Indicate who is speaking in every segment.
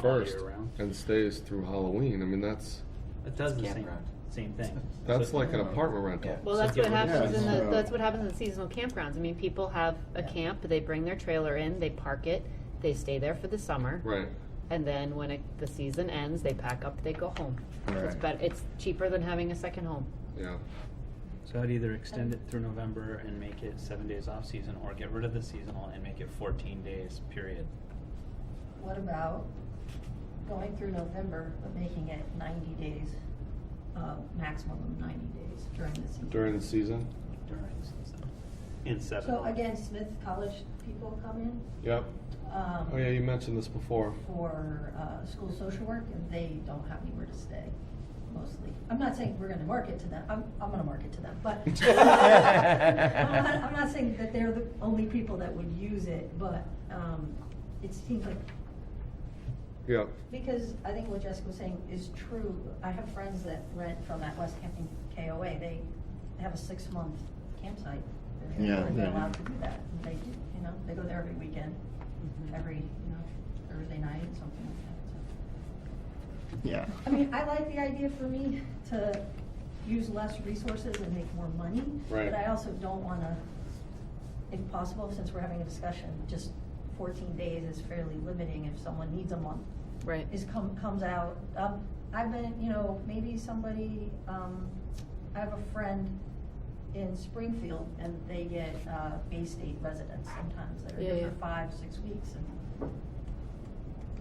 Speaker 1: first
Speaker 2: year-round.
Speaker 1: and stays through Halloween, I mean, that's,
Speaker 2: It does the same,
Speaker 3: campground.
Speaker 2: same thing.
Speaker 1: that's
Speaker 2: So-
Speaker 1: like an apartment rental.
Speaker 3: Yeah.
Speaker 4: Well,
Speaker 2: So
Speaker 4: that's
Speaker 2: get
Speaker 4: what
Speaker 2: rid of
Speaker 4: happens in
Speaker 5: that.
Speaker 4: the,
Speaker 5: Yeah.
Speaker 4: that's what happens in seasonal campgrounds. I mean, people have a
Speaker 3: Yeah.
Speaker 4: camp, they bring their trailer in, they park it, they stay there for the summer.
Speaker 1: Right,
Speaker 4: And then when it, the season ends, they pack up, they go home. It's
Speaker 5: Right.
Speaker 4: bet, it's cheaper than having a second home.
Speaker 1: yeah.
Speaker 2: So I'd either extend it through November and make it seven days off season, or get rid of the seasonal and make it fourteen days, period.
Speaker 6: What about going through November, but making it ninety days, uh, maximum of ninety days during the season?
Speaker 1: During the season?
Speaker 2: During season. In seven.
Speaker 6: So again, Smith College people come in,
Speaker 1: Yep.
Speaker 6: um.
Speaker 1: Oh, yeah, you mentioned this before.
Speaker 6: for uh, school social work, and they don't have anywhere to stay, mostly. I'm not saying we're gonna market to them, I'm, I'm gonna market to them, but. I'm not- I'm not saying that they're the only people that would use it, but um, it seems like,
Speaker 1: Yep,
Speaker 6: because I think what Jessica was saying is true. I have friends that rent from that West Hampton KOA, they have a six-month campsite. They're-
Speaker 5: Yeah.
Speaker 6: They're
Speaker 5: Yeah.
Speaker 6: allowed to do that, and they, do, you know, they go there every weekend, every, you know, Thursday night, something like that, so.
Speaker 5: Yeah.
Speaker 6: I mean, I like the idea for me to use less resources and make more money.
Speaker 1: Right.
Speaker 6: But I also don't wanna, if possible, since we're having a discussion, just fourteen days is fairly limiting if someone needs a month.
Speaker 4: Right.
Speaker 6: Is come, comes out, um, I've been, you know, maybe somebody, um, I have a friend in Springfield and they get, uh, Bay State residents sometimes. They're
Speaker 4: Yeah,
Speaker 6: here
Speaker 4: yeah.
Speaker 6: for five, six weeks and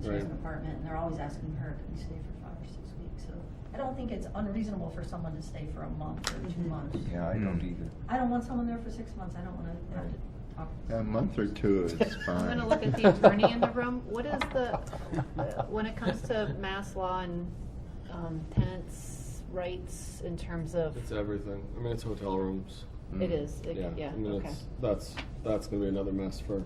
Speaker 6: she has an
Speaker 1: Right.
Speaker 6: apartment, and they're always asking her, can you stay for five or six weeks? So I don't think it's unreasonable for someone to stay for a month or two
Speaker 4: Mhm.
Speaker 6: months.
Speaker 3: Yeah, I
Speaker 5: Hmm.
Speaker 3: don't either.
Speaker 6: I don't want someone there for six months, I don't wanna have to talk.
Speaker 5: A month or two is fine.
Speaker 4: I'm gonna look at the attorney in the room. What is the, when it comes to mass law and, um, tenants' rights in terms of,
Speaker 1: it's everything. I mean, it's hotel rooms.
Speaker 4: it is, it-
Speaker 1: Yeah,
Speaker 4: yeah,
Speaker 1: I mean,
Speaker 4: okay,
Speaker 1: it's, that's, that's gonna be another mess for,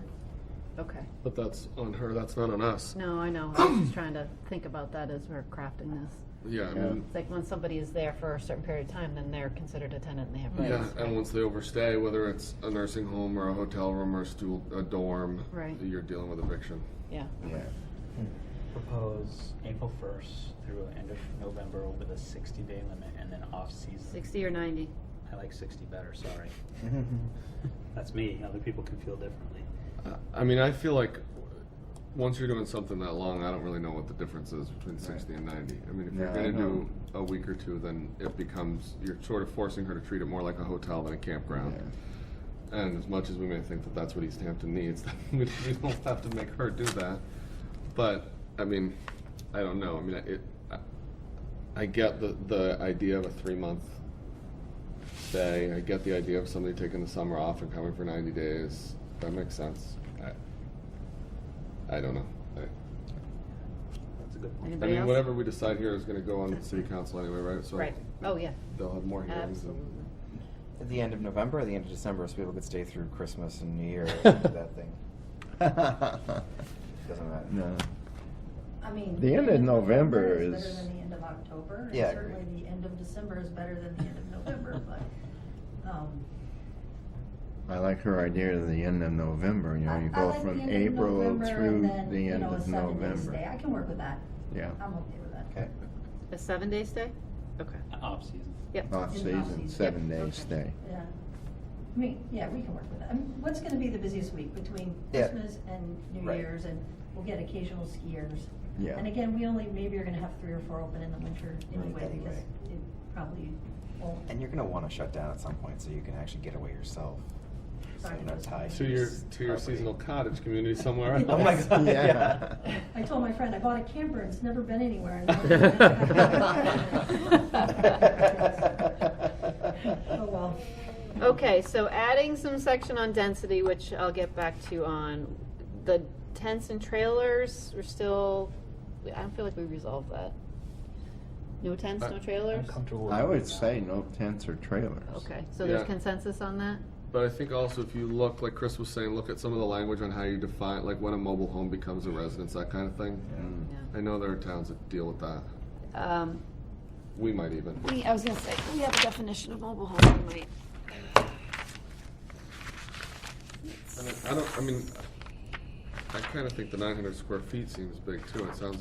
Speaker 4: okay.
Speaker 1: but that's on her, that's not on us.
Speaker 4: No, I know, I was just trying to think about that as we're crafting this.
Speaker 1: Yeah, I
Speaker 5: Yeah.
Speaker 1: mean,
Speaker 4: It's like when somebody is there for a certain period of time, then they're considered a tenant and they have
Speaker 1: yeah,
Speaker 4: rights.
Speaker 1: and once they overstay, whether it's a nursing home or a hotel room or a stool, a dorm,
Speaker 4: Right.
Speaker 1: you're dealing with eviction.
Speaker 4: Yeah,
Speaker 5: Yeah.
Speaker 2: Propose April first through end of November with a sixty day limit and then off season.
Speaker 4: sixty or ninety.
Speaker 2: I like sixty better, sorry.
Speaker 5: Mm-hmm.
Speaker 2: That's me, other people can feel differently.
Speaker 1: Uh, I mean, I feel like once you're doing something that long, I don't really know what the difference is between 60 and 90. I mean, if you're
Speaker 5: No, I
Speaker 1: going to do
Speaker 5: know.
Speaker 1: a week or two, then it becomes, you're sort of forcing her to treat it more like a hotel than a campground. And as much as we may think that that's what East Hampton needs, we don't have to make her do that. But, I mean, I don't know. I mean, it, I, I get the, the idea of a three month stay. I get the idea of somebody taking the summer off and coming for 90 days. That makes sense. I, I don't know. I,
Speaker 2: That's a good point.
Speaker 1: I
Speaker 4: Anybody
Speaker 1: mean,
Speaker 4: else?
Speaker 1: whatever we decide here is going to go on city council anyway, right? So
Speaker 4: Right, oh, yeah,
Speaker 1: They'll have more hearings.
Speaker 4: absolutely.
Speaker 1: and-
Speaker 3: At the end of November or the end of December, so people could stay through Christmas and New Year and do that thing. Doesn't matter.
Speaker 5: no.
Speaker 6: I mean.
Speaker 5: The end of November
Speaker 6: Better
Speaker 5: is-
Speaker 6: than the end of October, and
Speaker 3: Yeah, I
Speaker 6: certainly
Speaker 3: agree.
Speaker 6: the end of December is better than the end of November, but, um.
Speaker 5: I like her idea of the end of November. You know, you go from April through the end of November.
Speaker 6: I can work with that,
Speaker 5: Yeah.
Speaker 6: I'm okay with that.
Speaker 3: Okay.
Speaker 4: A seven day stay? Okay,
Speaker 2: Off season.
Speaker 4: yep.
Speaker 5: Off season,
Speaker 6: season.
Speaker 5: seven
Speaker 4: Yep.
Speaker 5: day
Speaker 4: Okay.
Speaker 5: stay.
Speaker 6: Yeah. I mean, yeah, we can work with that. I mean, what's gonna be the busiest week between
Speaker 3: Yeah.
Speaker 6: Christmas and New
Speaker 3: Right.
Speaker 6: Year's and we'll get occasional skiers.
Speaker 5: Yeah.
Speaker 6: And again, we only, maybe are gonna have three or four open in the winter
Speaker 3: Right,
Speaker 6: anyway because
Speaker 3: anyway.
Speaker 6: it probably won't.
Speaker 3: And you're going to want to shut down at some point so you can actually get away yourself. So you're not tied
Speaker 1: To your,
Speaker 3: this
Speaker 1: to your
Speaker 3: property.
Speaker 1: seasonal cottage community somewhere else.
Speaker 6: Oh my
Speaker 2: God,
Speaker 3: yeah.
Speaker 6: I told my friend, I bought a camper, it's never been anywhere. Oh, well.
Speaker 4: Okay, so adding some section on density, which I'll get back to on, the tents and trailers, we're still, I don't feel like we resolved that. No tents,
Speaker 1: Uh,
Speaker 4: no trailers?
Speaker 5: I would say no tents or trailers.
Speaker 4: Okay, so there's
Speaker 1: Yeah.
Speaker 4: consensus on that?
Speaker 1: But I think also if you look, like Chris was saying, look at some of the language on how you define, like when a mobile home becomes a residence, that kind of thing.
Speaker 5: Mm.
Speaker 4: Yeah.
Speaker 1: I know there are towns that deal with that.
Speaker 4: Um,
Speaker 1: We might even.
Speaker 7: We, I was gonna say, we have a definition of mobile home, we might.
Speaker 1: I don't, I mean, I kind of think the 900 square feet seems big too. It sounds